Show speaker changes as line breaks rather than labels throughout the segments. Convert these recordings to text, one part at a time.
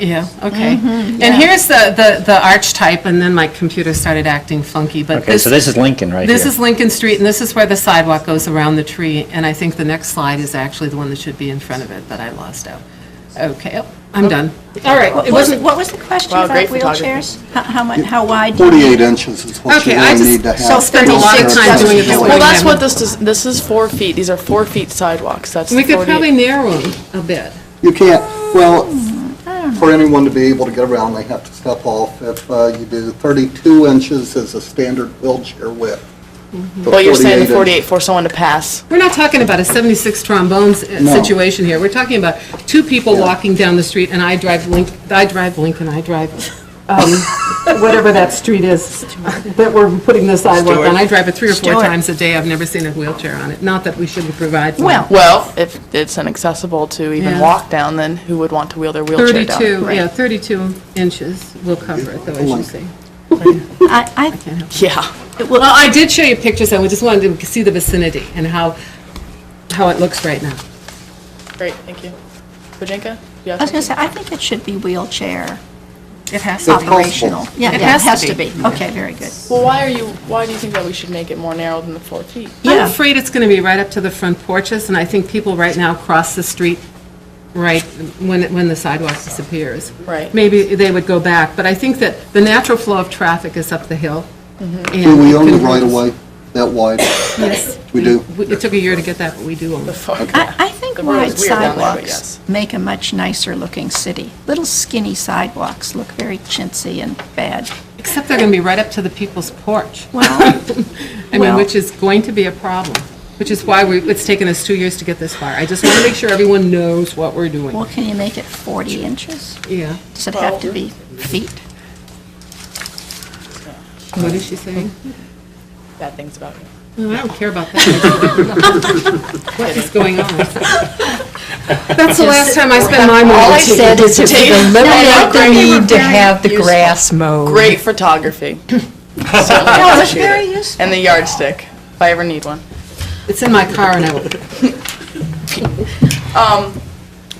Yeah, okay. And here's the, the, the arch type, and then my computer started acting funky, but
Okay,
this,
so this is Lincoln right here.
this is Lincoln Street, and this is where the sidewalk goes around the tree, and I think the next slide is actually the one that should be in front of it, but I lost out. Okay, oh, I'm done. All right,
What
it
was,
wasn't,
what was the question
Wow,
about
great photography.
wheelchairs? How- How, mu- how wide? do you-
48 inches is what
Okay,
you're
I
going to
just-
need to have.
so spent a lot of time doing it this way.
Well, that's what this is, this is four feet, these are four feet sidewalks, that's
we could
48.
probably narrow them a bit.
You can't, well,
Hmm,
for anyone to be able to get around, they have to step off. If uh, you do 32 inches is a standard wheelchair width.
Mm-hmm.
Well, you're saying the
48
48 for someone to pass.
We're not talking about a 76 trombones uh,
No.
situation here. We're talking about two people walking down the street, and I drive Link, I drive Lincoln, I drive, um, whatever that street is that we're putting the sidewalk on. I drive it three or four
Stewart.
times a day. I've never seen a wheelchair on it. Not that we shouldn't provide one.
Well,
Well, if it's inaccessible to even
Yeah.
walk down, then who would want to wheel their wheelchair down?
32,
Right.
yeah, 32 inches will cover it, though, as you see.
I, I,
Yeah.
Well, I did show you pictures, and we just wanted to see the vicinity and how, how it looks right now.
Great, thank you. Bojinka? you
I was
have
gonna say, I think it should be wheelchair
It has
to be.
operational.
possible.
Yeah,
It
yeah, it
has
has
to
to
be.
be. Okay, very good.
Well, why are you, why do you think that we should make it more narrow than the four feet?
I'm
Yeah.
afraid it's going to be right up to the front porches, and I think people right now cross the street right when, it- when the sidewalk disappears.
Right.
Maybe they would go back, but I think that the natural flow of traffic is up the hill.
Mm-hmm.
Do we own the right-of-way that wide?
Yes.
We do?
It took a year to get that, but we do own it.
I, I think
The road
wide
is weird down there, but yes.
sidewalks make a much nicer looking city. Little skinny sidewalks look very chintzy and bad.
Except they're going to be right up to the people's porch.
Well,
I mean,
Well-
which is going to be a problem, which is why we, it's taken us two years to get this far. I just want to make sure everyone knows what we're doing.
well, can you make it 40 inches?
Yeah.
Does it have to be feet?
What is she saying?
Bad things about you.
No, I don't care about that. What is going on? That's the last time I spend my
All I
morning.
said is if we eliminate the need to have the grass mowed.
Great photography.
No, it's very useful.
And the yardstick, if I ever need one.
It's in my car and I will,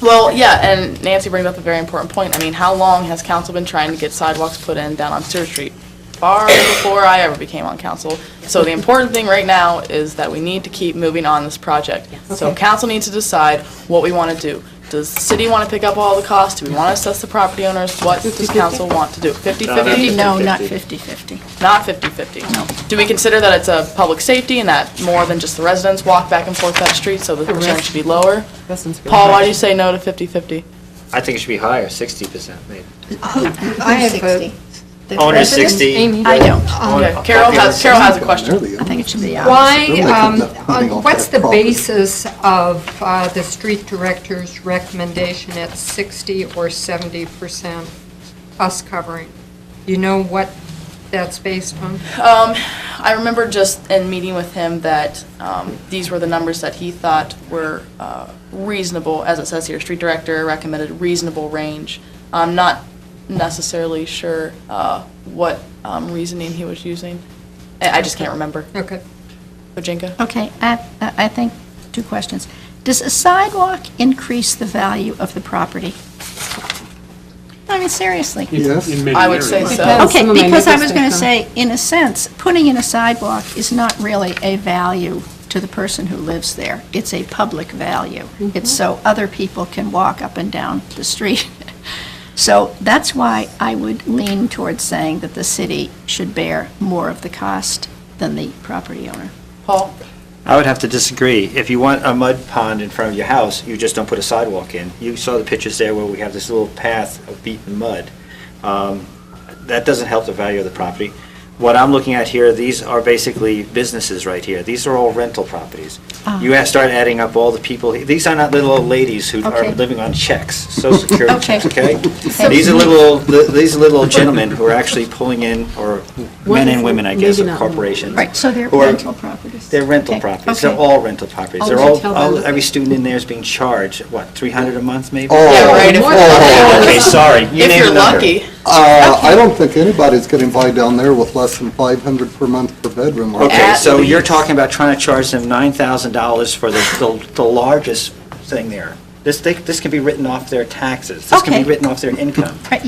Well, yeah, and Nancy brings up a very important point. I mean, how long has council been trying to get sidewalks put in down on Stewart Street? Far before I ever became on council. So the important thing right now is that we need to keep moving on this project. So council needs to decide what we want to do. Does the city want to pick up all the costs? Do we want to assess the property owners? What does council want to do? Fifty-fifty?
No, not 50/50.
Not fifty-fifty? Do we consider that it's a public safety and that more than just the residents walk back and forth that street, so the percentage should be lower?
Residents go
Paul,
back.
why do you say no to fifty-fifty?
I think it should be higher, sixty percent maybe.
I have 60.
Owner sixty.
I don't.
Okay, Carol has, Carol has a question.
I think it should be opposite.
Why,
They're making
um,
enough money
on-
off
what's
that
the
property.
basis of uh, the street director's recommendation at 60 or 70% us covering? You know what that's based on?
Um, I remember just in meeting with him that um, these were the numbers that he thought were uh, reasonable, as it says here, street director recommended reasonable range. I'm not necessarily sure uh, what um, reasoning he was using. I I just can't remember.
Okay.
Bojinka?
Okay, I, I think, two questions. Does a sidewalk increase the value of the property? I mean, seriously.
Yes.
I would say so.
does.
Okay,
Some of my
because I
neighbors
was
think
going to
so.
say, in a sense, putting in a sidewalk is not really a value to the person who lives there. It's a public value.
Mm-hmm.
It's so other people can walk up and down the street. So that's why I would lean towards saying that the city should bear more of the cost than the property owner.
Paul?
I would have to disagree. If you want a mud pond in front of your house, you just don't put a sidewalk in. You saw the pictures there where we have this little path of beaten mud. Um, That doesn't help the value of the property. What I'm looking at here, these are basically businesses right here. These are all rental properties.
Ah.
You have- start adding up all the people, these are not little old ladies who are
Okay.
living on checks, social security
Okay.
checks, okay? These are little, these are little gentlemen who are actually pulling in, or men and women, I guess,
Maybe not.
of corporations.
Right, so they're
who are-
rental properties.
they're rental
Okay,
properties, they're
okay.
all rental properties.
Oh,
They're
did you
all,
tell
all-
them?
every student in there is being charged, what, 300 a month maybe?
Yeah, right, if-
Oh, Okay, sorry. You
If
named
you're
a number.
lucky.
Uh, I don't think anybody's getting by down there with less than 500 per month per bedroom. are they?
Okay,
At
so you're
least.
talking about trying to charge them $9,000 for the- the the largest thing there. This, they- this can be written off their taxes. This can
Okay.
be written off their income.
Right,